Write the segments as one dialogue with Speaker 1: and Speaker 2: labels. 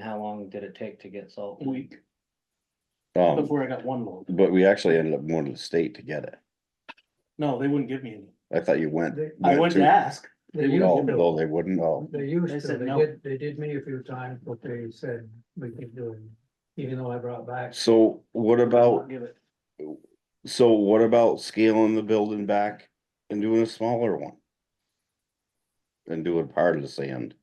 Speaker 1: long did it take to get salt?
Speaker 2: week
Speaker 3: Um,
Speaker 2: before I got one load.
Speaker 3: but we actually ended up going to the state to get it.
Speaker 2: No, they wouldn't give me any.
Speaker 3: I thought you went.
Speaker 4: They-
Speaker 2: I went to ask.
Speaker 4: They used
Speaker 3: No,
Speaker 4: to,
Speaker 3: no, they wouldn't, oh,
Speaker 4: they
Speaker 2: They
Speaker 4: used to,
Speaker 2: said
Speaker 4: they
Speaker 2: no.
Speaker 4: did, they did me a few times, but they said we keep doing, even though I brought back.
Speaker 3: so what about,
Speaker 2: Give it.
Speaker 3: so what about scaling the building back and doing a smaller one? And doing part of the sand,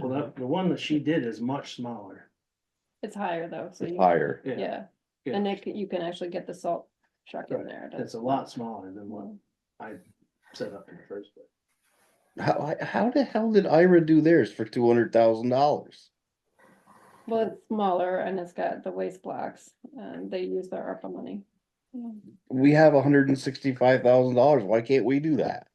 Speaker 2: Well, that, the one that she did is much smaller.
Speaker 5: It's higher though, so
Speaker 3: It's
Speaker 5: you,
Speaker 3: higher,
Speaker 5: yeah,
Speaker 2: yeah.
Speaker 5: and it, c- you can actually get the salt truck in
Speaker 2: Right,
Speaker 5: there. to-
Speaker 2: It's a lot smaller than what I set up in the first place.
Speaker 3: how, how the hell did Ira do theirs for two hundred thousand dollars?
Speaker 5: Well, it's smaller and it's got the waste blocks, and they use their ARPA money. Yeah.
Speaker 3: we have hundred and sixty-five thousand dollars, why can't we do that?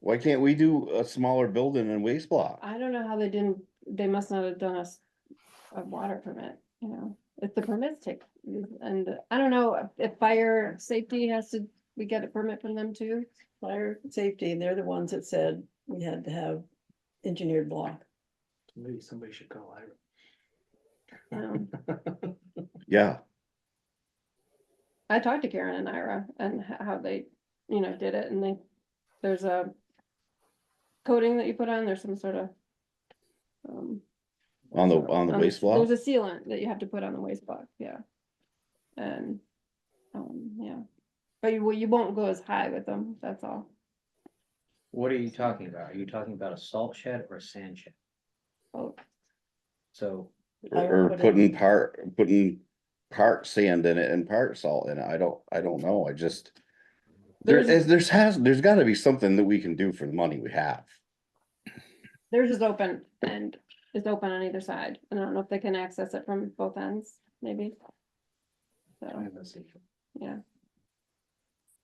Speaker 3: Why can't we do a smaller building and waste block?
Speaker 5: I don't know how they didn't, they must not have done us a water permit, you know, if the permits take, and I don't know if fire safety has to, we get a permit from them too.
Speaker 6: Fire safety, they're the ones that said we had to have engineered block.
Speaker 2: Maybe somebody should call Ira.
Speaker 5: you know.
Speaker 3: Yeah,
Speaker 5: I talked to Karen and Ira and h- how they, you know, did it and they, there's a coating that you put on, there's some sort of um,
Speaker 3: on the, on the
Speaker 5: um,
Speaker 3: waste block,
Speaker 5: There's a sealant that you have to put on the waste block, yeah. And, um, yeah, but you, well, you won't go as high with them, that's all.
Speaker 1: What are you talking about? Are you talking about a salt shed or a sand shed?
Speaker 5: Oh,
Speaker 1: So
Speaker 3: or or putting part, putting part sand in it and part salt in it, I don't, I don't know, I just. There
Speaker 5: There's-
Speaker 3: is, there's has, there's gotta be something that we can do for the money we have.
Speaker 5: Theirs is open and it's open on either side. and I don't know if they can access it from both ends, maybe.
Speaker 1: I
Speaker 5: So,
Speaker 1: haven't seen-
Speaker 5: yeah,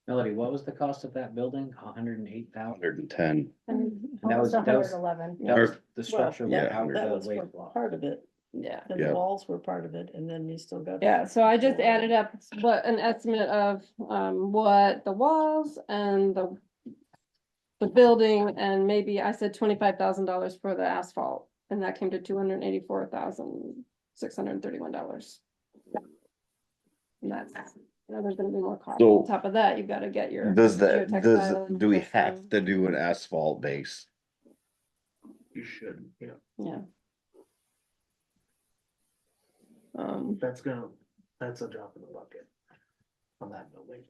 Speaker 1: Melody, what was the cost of that building? A hundred and eight thousand?
Speaker 3: Hundred and ten,
Speaker 5: and,
Speaker 1: That was, that was,
Speaker 7: eleven.
Speaker 1: that was the
Speaker 6: Well,
Speaker 1: structure
Speaker 6: yeah,
Speaker 1: without
Speaker 6: That
Speaker 1: the
Speaker 6: was for
Speaker 1: waste block.
Speaker 6: part of it,
Speaker 5: yeah.
Speaker 6: and
Speaker 3: Yeah.
Speaker 6: the walls were part of it, and then you still got.
Speaker 5: Yeah, so I just added up what an estimate of um what the walls and the. The building and maybe I said twenty-five thousand dollars for the asphalt and that came to two hundred and eighty-four thousand six hundred and thirty-one dollars. And that's, you know, there's gonna be more cost.
Speaker 3: So-
Speaker 5: On top of that, you gotta get your.
Speaker 3: does
Speaker 5: your
Speaker 3: that, does,
Speaker 5: textile
Speaker 3: do we
Speaker 5: and
Speaker 3: have
Speaker 5: stuff.
Speaker 3: to do an asphalt base?
Speaker 2: You should, yeah.
Speaker 5: Yeah. Um,
Speaker 2: That's gonna, that's a drop in the bucket. On that building,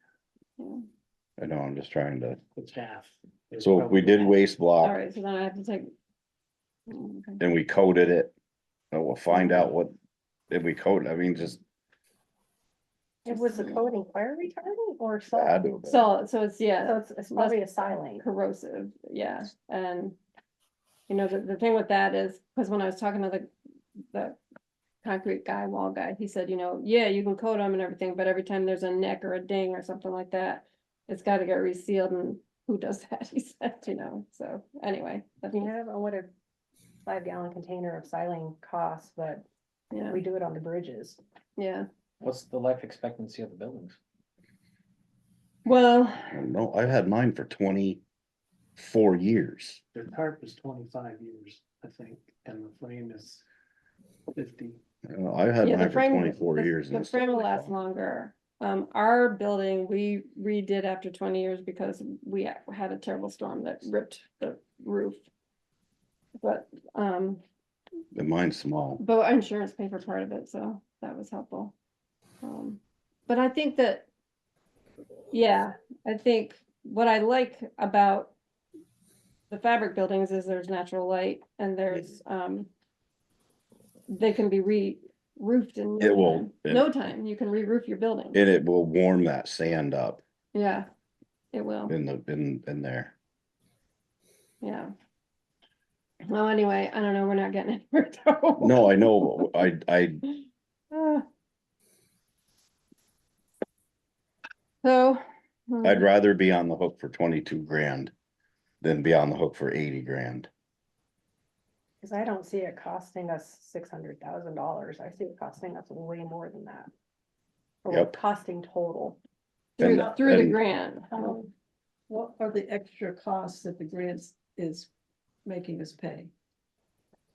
Speaker 5: yeah.
Speaker 3: I know, I'm just trying to,
Speaker 2: it's half. It's
Speaker 3: so if we
Speaker 2: probably
Speaker 3: did
Speaker 2: half.
Speaker 3: waste block.
Speaker 5: all right, so then I have to take. Mm, okay.
Speaker 3: and we coded it. And we'll find out what, if we code, I mean, just.
Speaker 7: It was the coating fire retardant or salt?
Speaker 3: I don't know.
Speaker 5: So, so it's, yeah.
Speaker 7: So it's, it's probably a silane.
Speaker 5: corrosive, yeah, and. You know, the, the thing with that is, because when I was talking to the, the concrete guy, wall guy, he said, you know, yeah, you can coat them and everything, but every time there's a nick or a ding or something like that. It's gotta get resealed and who does that, he said, you know, so anyway, that's
Speaker 7: You
Speaker 5: just-
Speaker 7: know, I don't know what a five gallon container of silane costs, but
Speaker 5: yeah,
Speaker 7: we do it on the bridges.
Speaker 5: yeah,
Speaker 1: What's the life expectancy of the buildings?
Speaker 5: well,
Speaker 3: No, I've had mine for twenty-four years.
Speaker 2: The tarp is twenty-five years, I think, and the frame is fifty.
Speaker 3: You know, I've had
Speaker 5: Yeah, the
Speaker 3: mine for
Speaker 5: frame-
Speaker 3: twenty-four
Speaker 5: the-
Speaker 3: years. and
Speaker 5: The
Speaker 3: it's
Speaker 5: frame
Speaker 3: still
Speaker 5: will
Speaker 3: pretty
Speaker 5: last
Speaker 3: fun.
Speaker 5: longer. Um, our building, we redid after twenty years because we ha- had a terrible storm that ripped the roof. But, um,
Speaker 3: And mine's small.
Speaker 5: but our insurance paid for part of it, so that was helpful. Um, But I think that, yeah, I think what I like about the fabric buildings is there's natural light and there's, um, they can be re-roofed in. no
Speaker 3: It will,
Speaker 5: time.
Speaker 3: yeah.
Speaker 5: No time, you can re-roof your building.
Speaker 3: And it will warm that sand up
Speaker 5: Yeah, it will.
Speaker 3: in the, in, in there.
Speaker 5: Yeah. Well, anyway, I don't know, we're not getting it.
Speaker 3: No, I know, but I, I,
Speaker 5: Ah. So.
Speaker 3: I'd
Speaker 5: mm,
Speaker 3: rather be on the hook for twenty-two grand than be on the hook for eighty grand.
Speaker 7: Cause I don't see it costing us six hundred thousand dollars. I see it costing us way more than that. Or
Speaker 3: Yep.
Speaker 7: Costing total.
Speaker 5: Through,
Speaker 3: and-
Speaker 5: through the
Speaker 3: and-
Speaker 5: grant.
Speaker 6: Um, What are the extra costs that the grants is making us pay?